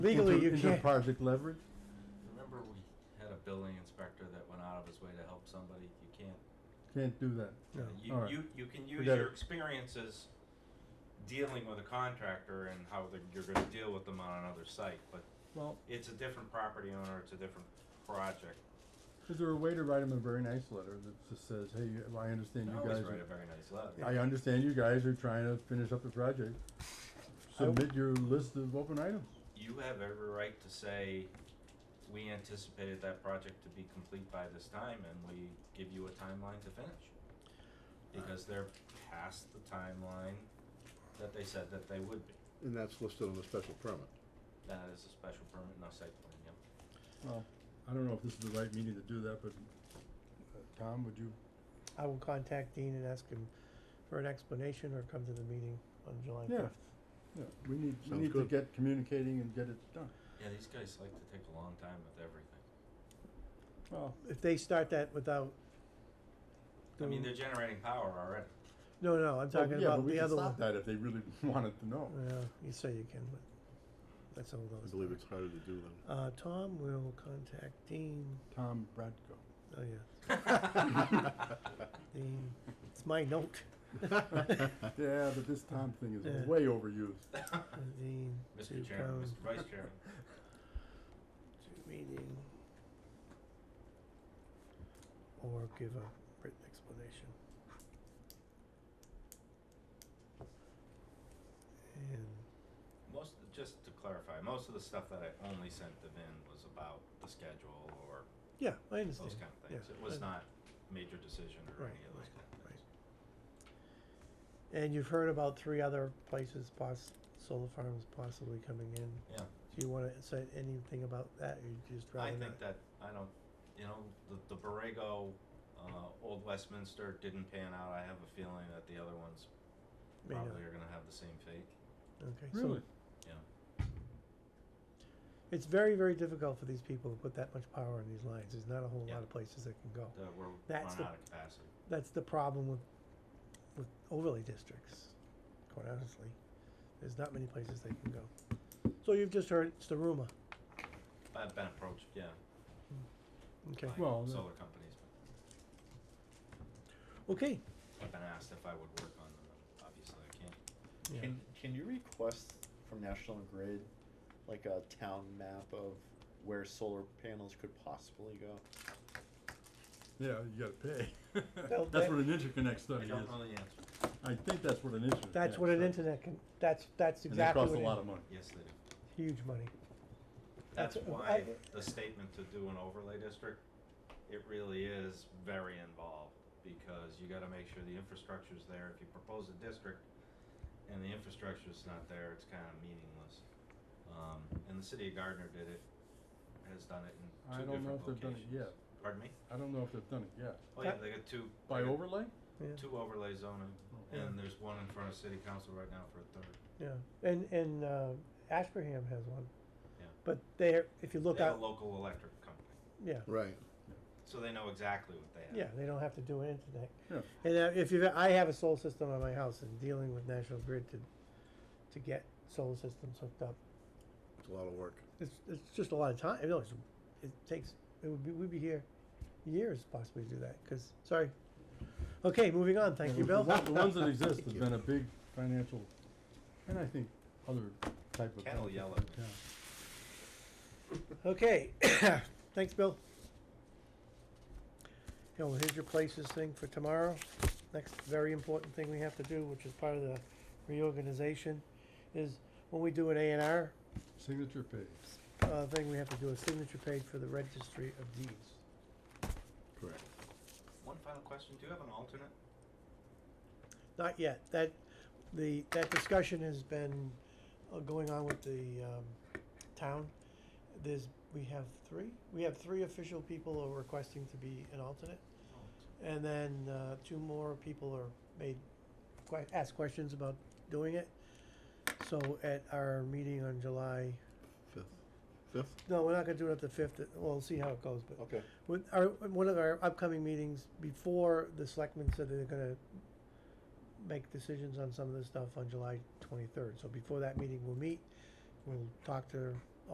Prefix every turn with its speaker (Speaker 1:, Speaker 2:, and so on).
Speaker 1: Legally,
Speaker 2: Inter-
Speaker 1: you can't.
Speaker 2: Inter-project leverage?
Speaker 3: Remember we had a building inspector that went out of his way to help somebody? You can't,
Speaker 2: Can't do that.
Speaker 1: No.
Speaker 3: you,
Speaker 2: Alright.
Speaker 3: you, you can use
Speaker 2: Forget
Speaker 3: your
Speaker 2: it.
Speaker 3: experiences dealing with a contractor and how they're, you're gonna deal with them on another site, but
Speaker 2: Well,
Speaker 3: it's a different property owner, it's a different project.
Speaker 2: is there a way to write him a very nice letter that just says, hey, you- I understand
Speaker 3: I
Speaker 2: you
Speaker 3: always
Speaker 2: guys
Speaker 3: write a
Speaker 2: are,
Speaker 3: very nice letter.
Speaker 2: I understand you guys are trying to finish up the project. Submit your list of open items.
Speaker 3: You have every right to say, we anticipated that project to be complete by this time and we give you a timeline to finish.
Speaker 2: Uh,
Speaker 3: Because they're past the timeline that they said that they would be.
Speaker 4: And that's listed on the special permit.
Speaker 3: That is Uh, a special permit, no site plan, yep.
Speaker 2: Well, I don't know if this is the right meeting to do that, but, uh, Tom, would you,
Speaker 1: I will contact Dean and ask him for an explanation or come to the meeting on July
Speaker 2: Yeah.
Speaker 1: fifth.
Speaker 2: yeah, we need, we
Speaker 4: Sounds
Speaker 2: need to
Speaker 4: good.
Speaker 2: get communicating and get it done.
Speaker 3: Yeah, these guys like to take a long time with everything.
Speaker 2: Well,
Speaker 1: If they start that without.
Speaker 3: I mean,
Speaker 1: doing-
Speaker 3: they're generating power already.
Speaker 1: No, no, I'm talking
Speaker 2: Oh, yeah, but
Speaker 1: about
Speaker 2: we
Speaker 1: the
Speaker 2: could
Speaker 1: other
Speaker 2: stop
Speaker 1: one.
Speaker 2: that if they really wanted to know.
Speaker 1: Yeah, you say you can, but that's all those.
Speaker 4: I believe it's harder to do than
Speaker 1: Uh, Tom will contact Dean,
Speaker 2: Tom Bradco.
Speaker 1: oh yeah, Dean, it's my note,
Speaker 2: Yeah, but this Tom thing
Speaker 1: Yeah.
Speaker 2: is way overused.
Speaker 1: Uh, Dean. to
Speaker 3: Mr. Chairman,
Speaker 1: come
Speaker 3: Mr. Vice Chairman,
Speaker 1: to Meeting. Or give a written explanation. And
Speaker 3: most, just to clarify, most of the stuff that I only sent to Vin was about the schedule or
Speaker 1: Yeah, I understand.
Speaker 3: those kind of
Speaker 1: Yeah,
Speaker 3: things. It was
Speaker 1: I-
Speaker 3: not major decision or
Speaker 1: Right,
Speaker 3: any of those kind of things.
Speaker 1: And you've heard about three other places poss- solar farms possibly coming in.
Speaker 3: Yeah,
Speaker 1: Do you wanna say anything about that, or you just
Speaker 3: I
Speaker 1: rather
Speaker 3: think
Speaker 1: not?
Speaker 3: that, I don't, you know, the, the Borrego, uh, Old Westminster didn't pan out. I have a feeling that the other ones
Speaker 1: may not.
Speaker 3: probably are gonna have the same fate,
Speaker 1: Okay, so
Speaker 2: Really?
Speaker 3: yeah.
Speaker 1: It's very, very difficult for these people to put that much power in these lines, there's not a whole
Speaker 3: Yeah.
Speaker 1: lot of places that can go.
Speaker 3: That we're running
Speaker 1: That's the-
Speaker 3: out of capacity.
Speaker 1: that's the problem with with overlay districts, quite honestly. There's not many places they can go. So you've just heard it's the rumor.
Speaker 3: I've been approached, yeah,
Speaker 1: Okay.
Speaker 3: by
Speaker 2: Well, the-
Speaker 3: solar companies, but
Speaker 1: Okay.
Speaker 3: I've been asked if I would work on them, and obviously I can't.
Speaker 1: Yeah.
Speaker 5: Can, can you request from National Grid, like a town map of where solar panels could possibly go?
Speaker 2: Yeah, you gotta pay.
Speaker 1: Well,
Speaker 2: That's
Speaker 1: that-
Speaker 2: what an interconnect
Speaker 3: I
Speaker 2: study
Speaker 3: don't
Speaker 2: is.
Speaker 3: know the answer.
Speaker 2: I think that's what an interconnect.
Speaker 1: That's what an
Speaker 2: study-
Speaker 1: internet can. That's that's
Speaker 2: And that
Speaker 1: exactly
Speaker 2: costs a
Speaker 1: what it
Speaker 2: lot
Speaker 1: is.
Speaker 2: of money.
Speaker 3: Yes, they do.
Speaker 1: huge money.
Speaker 3: That's
Speaker 1: That's-
Speaker 3: why
Speaker 1: I-
Speaker 3: the statement to do an overlay district, it really is very involved, because you gotta make sure the infrastructure's there. If you propose a district and the infrastructure's not there, it's kinda meaningless. Um, and the city of Gardner did it, has done it in
Speaker 2: I
Speaker 3: two
Speaker 2: don't
Speaker 3: different
Speaker 2: know if
Speaker 3: locations.
Speaker 2: they've done it yet.
Speaker 3: Pardon me?
Speaker 2: I don't know if they've done it yet.
Speaker 3: Oh yeah,
Speaker 1: That-
Speaker 3: they got two.
Speaker 2: By
Speaker 3: they got
Speaker 2: overlay?
Speaker 1: Yeah.
Speaker 3: Two overlay zoning,
Speaker 2: Oh.
Speaker 1: Yeah.
Speaker 3: and there's one in front of city council right now for a third.
Speaker 1: Yeah. And and uh, Ashburnham has one.
Speaker 3: Yeah.
Speaker 1: But there, if you look
Speaker 3: They have
Speaker 1: out,
Speaker 3: a local electric company,
Speaker 1: yeah,
Speaker 4: Right.
Speaker 3: so they know exactly what they have.
Speaker 1: yeah, they don't have to do an internet.
Speaker 2: Yeah.
Speaker 1: And uh, if you, I have a solar system on my house, and dealing with National Grid to to get solar systems hooked up
Speaker 4: It's a lot of work.
Speaker 1: It's, it's just a lot of time. No, it's, it takes, it would be, we'd be here years possibly to do that, because, sorry. Okay, moving on. Thank you,
Speaker 2: The
Speaker 1: Bill.
Speaker 2: one- The ones that exist have
Speaker 4: you.
Speaker 2: been a big financial, and I think other type of.
Speaker 3: Cattle
Speaker 2: benefit
Speaker 3: yell
Speaker 2: for
Speaker 3: at me.
Speaker 2: town.
Speaker 1: Okay, thanks, Bill. Yeah, well, here's your places thing for tomorrow. Next very important thing we have to do, which is part of the reorganization, is when we do an A and R,
Speaker 2: Signature page.
Speaker 1: uh, thing, we have to do a signature page for the registry of deeds.
Speaker 4: Correct.
Speaker 3: One final question, do you have an alternate?
Speaker 1: Not yet. That, the, that discussion has been uh, going on with the um, town. There's, we have three, we have three official people who are requesting to be an alternate. And then uh, two more people are made, que- asked questions about doing it. So at our meeting on July,
Speaker 4: Fifth. Fifth?
Speaker 1: no, we're not gonna do it at the fifth, uh, we'll see how it goes, but
Speaker 4: Okay.
Speaker 1: with our, one of our upcoming meetings, before the selectmen said they're gonna make decisions on some of this stuff on July twenty-third, so before that meeting, we'll meet, we'll talk to